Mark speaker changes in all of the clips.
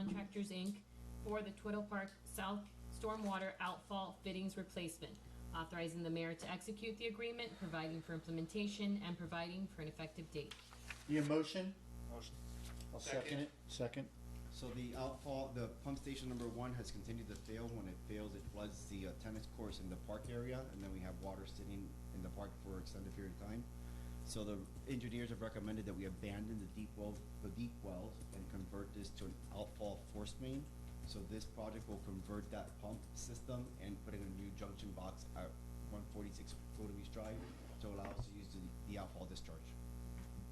Speaker 1: Contractors, Inc. for the Twiddle Park South Stormwater Outfall Fittings Replacement, authorizing the mayor to execute the agreement, providing for implementation, and providing for an effective date.
Speaker 2: Need a motion?
Speaker 3: Motion.
Speaker 2: I'll second it. Second.
Speaker 4: So the outfall, the pump station number one has continued to fail. When it fails, it floods the uh, tennis courts in the park area, and then we have water sitting in the park for an extended period of time. So the engineers have recommended that we abandon the deep well, the deep wells and convert this to an outfall force main. So this project will convert that pump system and put in a new junction box at one forty-six Golden Beach Drive to allow us to use the, the outfall discharge.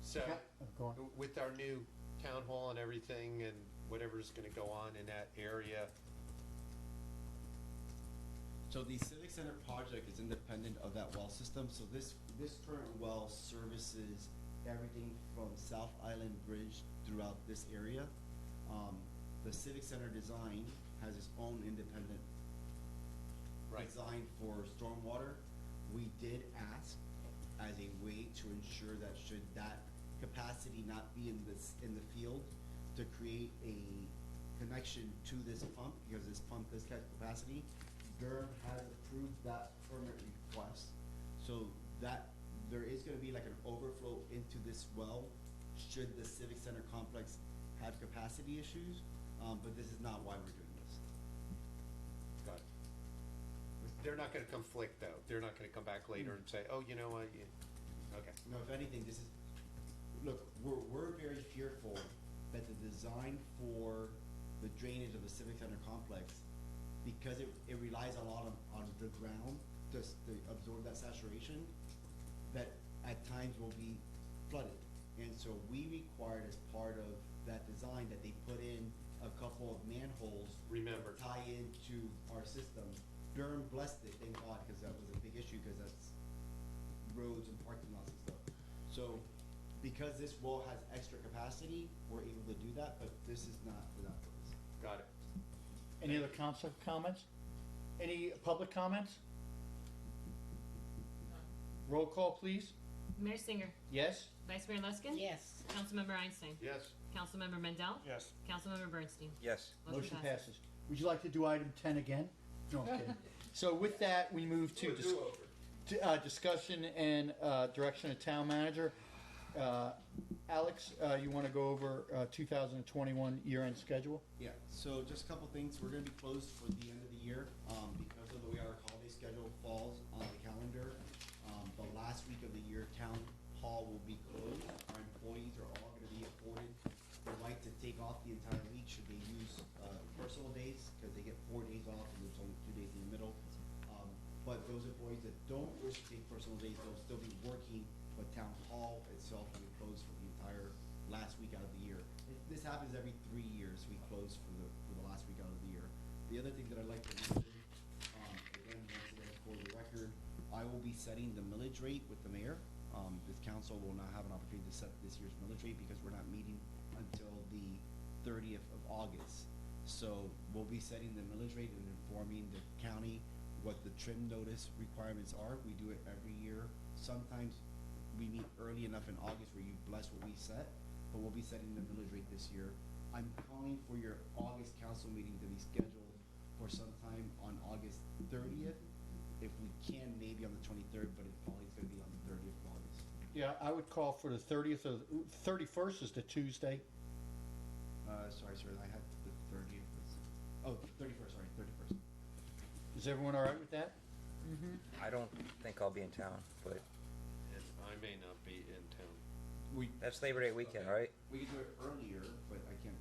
Speaker 3: So,
Speaker 2: Okay, Go on.
Speaker 3: with our new town hall and everything and whatever's gonna go on in that area,
Speaker 4: So the Civic Center project is independent of that well system, so this, this current well services everything from South Island Bridge throughout this area. Um, the Civic Center design has its own independent
Speaker 3: Right.
Speaker 4: design for stormwater. We did ask as a way to ensure that should that capacity not be in this, in the field, to create a connection to this pump, because this pump does have capacity. Durham has approved that permit request, so that, there is gonna be like an overflow into this well, should the civic center complex have capacity issues, um, but this is not why we're doing this.
Speaker 3: but they're not gonna conflict though. They're not gonna come back later and say, oh, you know what, you, okay.
Speaker 4: No, if anything, this is, look, we're, we're very fearful that the design for the drainage of the civic center complex, because it, it relies a lot on, on the ground to, s- to absorb that saturation, that at times will be flooded. And so we required as part of that design that they put in a couple of manholes
Speaker 3: Remember.
Speaker 4: tie into our system. Durham blessed it, thank God, because that was a big issue, because that's roads and parking lots and stuff. So, because this wall has extra capacity, we're able to do that, but this is not without this.
Speaker 3: Got it.
Speaker 2: Any other council comments? Any public comments? Roll call, please.
Speaker 1: Mayor Singer.
Speaker 2: Yes?
Speaker 1: Vice Mayor Luskin.
Speaker 5: Yes.
Speaker 1: Councilmember Einstein.
Speaker 3: Yes.
Speaker 1: Councilmember Mendel.
Speaker 6: Yes.
Speaker 1: Councilmember Bernstein.
Speaker 7: Yes.
Speaker 2: Motion passes. Would you like to do item ten again? No, I'm kidding. So with that, we move to dis- to, uh, discussion and, uh, direction of town manager. Uh, Alex, uh, you wanna go over, uh, two thousand and twenty-one year-end schedule?
Speaker 4: Yeah, so just a couple things, we're gonna be closed for the end of the year, um, because of the way our holiday schedule falls on the calendar. Um, the last week of the year, town hall will be closed, our employees are all gonna be afforded the right to take off the entire week should they use, uh, personal days, cause they get four days off and there's only two days in the middle. Um, but those employees that don't wish to take personal days, they'll still be working, but town hall itself will be closed for the entire last week out of the year. It- This happens every three years, we close for the, for the last week out of the year. The other thing that I'd like to mention, um, again, once again, for the record, I will be setting the millage rate with the mayor. Um, this council will not have an opportunity to set this year's millage rate because we're not meeting until the thirtieth of August. So we'll be setting the millage rate and informing the county what the trim notice requirements are. We do it every year. Sometimes we meet early enough in August where you bless what we set, but we'll be setting the millage rate this year. I'm calling for your August council meeting to be scheduled for sometime on August thirtieth. If we can, maybe on the twenty-third, but it probably is gonna be on the thirtieth of August.
Speaker 2: Yeah, I would call for the thirtieth of, thirty-first is the Tuesday.
Speaker 4: Uh, sorry, sir, I had the thirtieth. Oh, thirty-first, sorry, thirty-first.
Speaker 2: Is everyone all right with that?
Speaker 7: I don't think I'll be in town, but
Speaker 3: And I may not be in town.
Speaker 2: We,
Speaker 7: that's Labor Day weekend, right?
Speaker 4: We could do it earlier, but I can't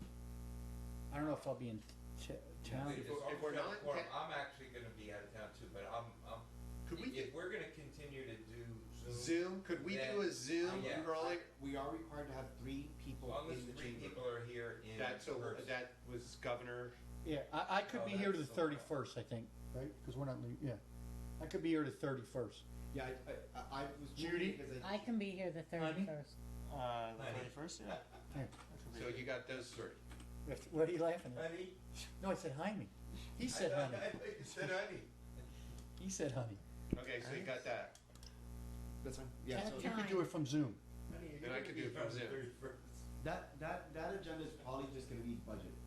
Speaker 2: I don't know if I'll be in t- town.
Speaker 3: If we're- if we're not-
Speaker 8: I'm actually gonna be out of town too, but I'm, I'm,
Speaker 3: Could we
Speaker 8: if
Speaker 3: do-
Speaker 8: we're gonna continue to do Zoom.
Speaker 3: Zoom, could we
Speaker 8: Yeah.
Speaker 3: do a Zoom
Speaker 8: Yeah.
Speaker 3: rolling?
Speaker 4: We are required to have three people
Speaker 8: As long as
Speaker 4: in the
Speaker 8: three
Speaker 4: chamber.
Speaker 8: people are here in
Speaker 3: That's a,
Speaker 8: person.
Speaker 3: that was governor,
Speaker 2: Yeah, I, I could
Speaker 8: Oh,
Speaker 2: be here to the
Speaker 8: that's so bad.
Speaker 2: thirty-first, I think, right? Because we're not, lea- yeah. I could be here to thirty-first.
Speaker 4: Yeah, I, I, I was
Speaker 2: Judy?
Speaker 4: because
Speaker 5: I can be here the
Speaker 2: Honey?
Speaker 5: thirty-first.
Speaker 6: Uh, the
Speaker 8: Honey.
Speaker 6: twenty-first, yeah.
Speaker 3: so you got those three.
Speaker 2: What are you laughing at?
Speaker 8: Honey?
Speaker 2: No, I said Jaime. He
Speaker 8: I
Speaker 2: said
Speaker 8: thought-
Speaker 2: honey.
Speaker 8: I thought you said honey.
Speaker 2: He said honey.
Speaker 3: Okay, so you got that.
Speaker 4: that's fine. Yeah, so
Speaker 2: You could do it from Zoom.
Speaker 8: Honey, you're
Speaker 3: Then I
Speaker 8: gonna
Speaker 3: could
Speaker 8: be
Speaker 3: do it from
Speaker 8: around the
Speaker 3: Zoom.
Speaker 8: 31st.
Speaker 4: that that that agenda is probably just going to be budget.